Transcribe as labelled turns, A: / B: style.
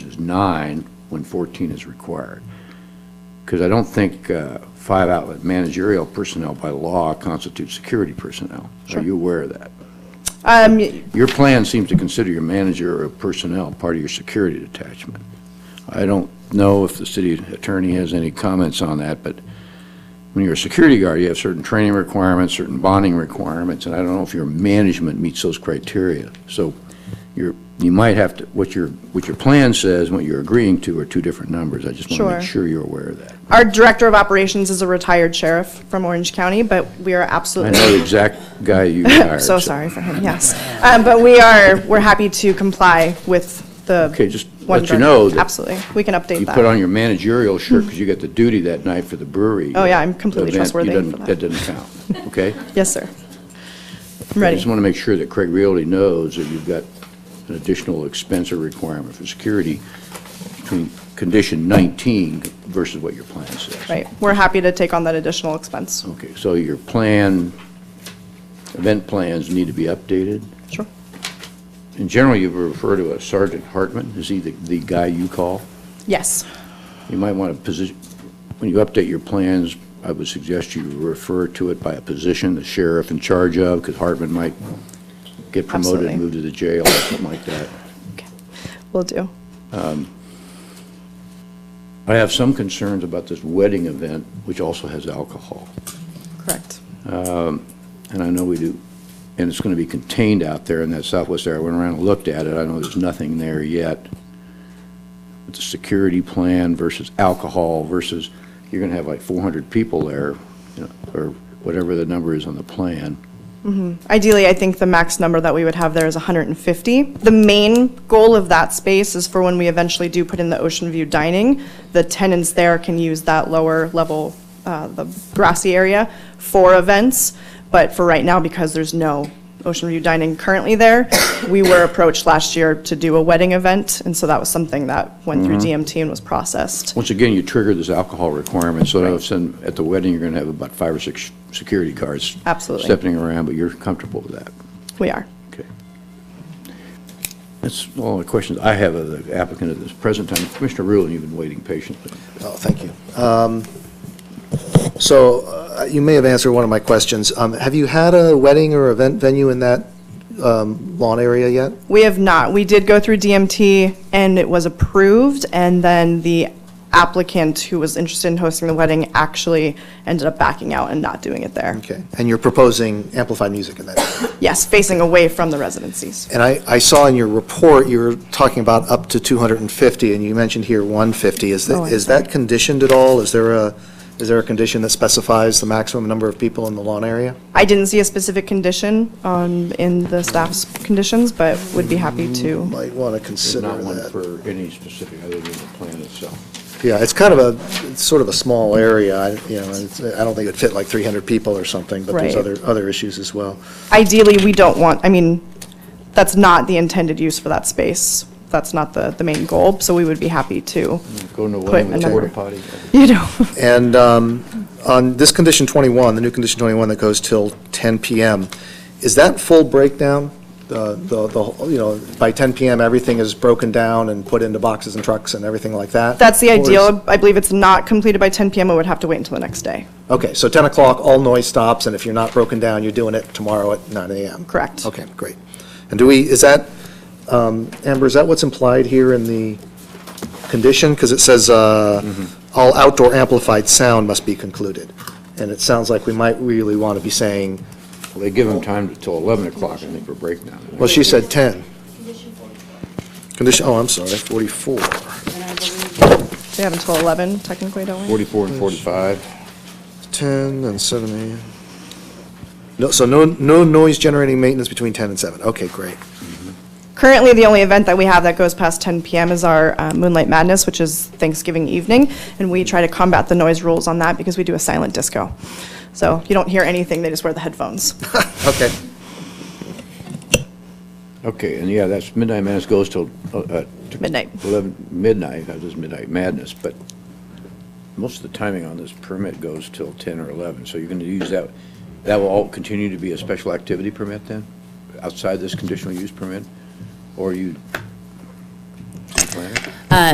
A: nine when 14 is required. Because I don't think uh, five outlet managerial personnel by law constitutes security personnel. Are you aware of that?
B: Um, y-
A: Your plan seems to consider your manager or personnel part of your security detachment. I don't know if the city attorney has any comments on that, but when you're a security guard, you have certain training requirements, certain bonding requirements, and I don't know if your management meets those criteria. So you're, you might have to, what your, what your plan says, and what you're agreeing to are two different numbers. I just want to
B: Sure.
A: make sure you're aware of that.
B: our director of operations is a retired sheriff from Orange County, but we are
A: I
B: absolutely.
A: know the exact guy you hired.
B: So sorry for him, yes. Um, But we are, we're happy to comply with the.
A: Okay, just
B: one
A: let you
B: drug-
A: know that
B: Absolutely, we can update
A: You put
B: that.
A: on your managerial shirt because you got the duty that night for the brewery.
B: Oh, yeah, I'm completely
A: event. You
B: trustworthy
A: doesn't-
B: for that.
A: That doesn't count, okay?
B: Yes, sir.
A: I
B: I'm ready.
A: just want to make sure that Craig Realty knows that you've got an additional expense or requirement for security between condition 19 versus what your plan says.
B: Right, we're happy to take on that additional expense.
A: Okay, so your plan, event plans need to be updated.
B: Sure.
A: In general, you refer to a Sergeant Hartman, is he the, the guy you call?
B: Yes,
A: You might want to position, when you update your plans, I would suggest you refer to it by a position, the sheriff in charge of, because Hartman might get promoted,
B: Absolutely.
A: and move to the jail or something like that.
B: will do.
A: I have some concerns about this wedding event, which also has alcohol,
B: Correct.
A: and I know we do, and it's going to be contained out there in that southwest area. I went around and looked at it, I know there's nothing there yet. But the security plan versus alcohol versus, you're going to have like 400 people there, you know, or whatever the number is on the plan.
B: Ideally, I think the max number that we would have there is 150. The main goal of that space is for when we eventually do put in the ocean view dining, the tenants there can use that lower level, uh, the grassy area for events. But for right now, because there's no ocean view dining currently there, we were approached last year to do a wedding event. And so that was something that went through DMT and was processed.
A: Once again, you trigger this alcohol requirement, so now some- at the wedding, you're going to have about five or six security guards.
B: Absolutely.
A: Stepping around, but you're comfortable with that.
B: We are.
A: Okay. That's all the questions I have of the applicant at this present time. Commissioner Rulon, you've been waiting patiently.
C: Oh, thank you. Um, So uh, you may have answered one of my questions. Um, Have you had a wedding or event venue in that um, lawn area yet?
B: We have not. We did go through DMT, and it was approved, and then the applicant who was interested in hosting the wedding actually ended up backing out and not doing it there.
C: Okay, and you're proposing amplified music in that area?
B: Yes, facing away from the residencies.
C: And I, I saw in your report, you were talking about up to 250, and you mentioned here 150. Is
B: Oh,
C: that,
B: I'm
C: is
B: sorry.
C: that conditioned at all? Is there a, is there a condition that specifies the maximum number of people in the lawn area?
B: I didn't see a specific condition um, in the staff's conditions, but would be happy to.
C: Might want to
A: There's
C: consider
A: not one
C: that.
A: for any specific other than the plan itself.
C: Yeah, it's kind of a, it's sort of a small area, I- you know, and it's- I don't think it'd fit like 300 people or something, but there's
B: Right.
C: other, other issues as well.
B: Ideally, we don't want, I mean, that's not the intended use for that space. That's not the, the main goal, so we would be happy to,
A: Go to one
B: Put
A: with a porta
B: another-
A: potty.
B: you know,
C: And um, on this condition 21, the new condition 21 that goes till 10 PM, is that full breakdown? The, the, the whole- you know, by 10 PM, everything is broken down and put into boxes and trucks and everything like that?
B: that's the
C: Or is-
B: ideal. I believe it's not completed by 10 PM, it would have to wait until the next day.
C: Okay, so 10 o'clock, all noise stops, and if you're not broken down, you're doing it tomorrow at 9 AM?
B: Correct.
C: Okay, great. And do we, is that, um, Amber, is that what's implied here in the condition? Because it says, uh, all outdoor amplified sound must be concluded. And it sounds like we might really want to be saying,
A: Well, They give them time until 11 o'clock, I think, for breakdown.
C: well, she said 10.
D: Condition 44,
C: Condition, oh, I'm sorry, 44.
D: and I believe
B: We have until 11 technically, don't we?
A: 44 and 45.
C: 10 and 7 AM. No, so no, no noise generating maintenance between 10 and 7. Okay, great.
B: Currently, the only event that we have that goes past 10 PM is our uh, Moonlight Madness, which is Thanksgiving evening, and we try to combat the noise rules on that because we do a silent disco. So you don't hear anything, they just wear the headphones.
C: Okay.
A: Okay, and yeah, that's Midnight Madness goes till uh, uh, t-
B: Midnight.
A: 11, midnight, that is Midnight Madness, but most of the timing on this permit goes till 10 or 11, so you're going to use that, that will all continue to be a special activity permit then, outside this conditional use permit? Or you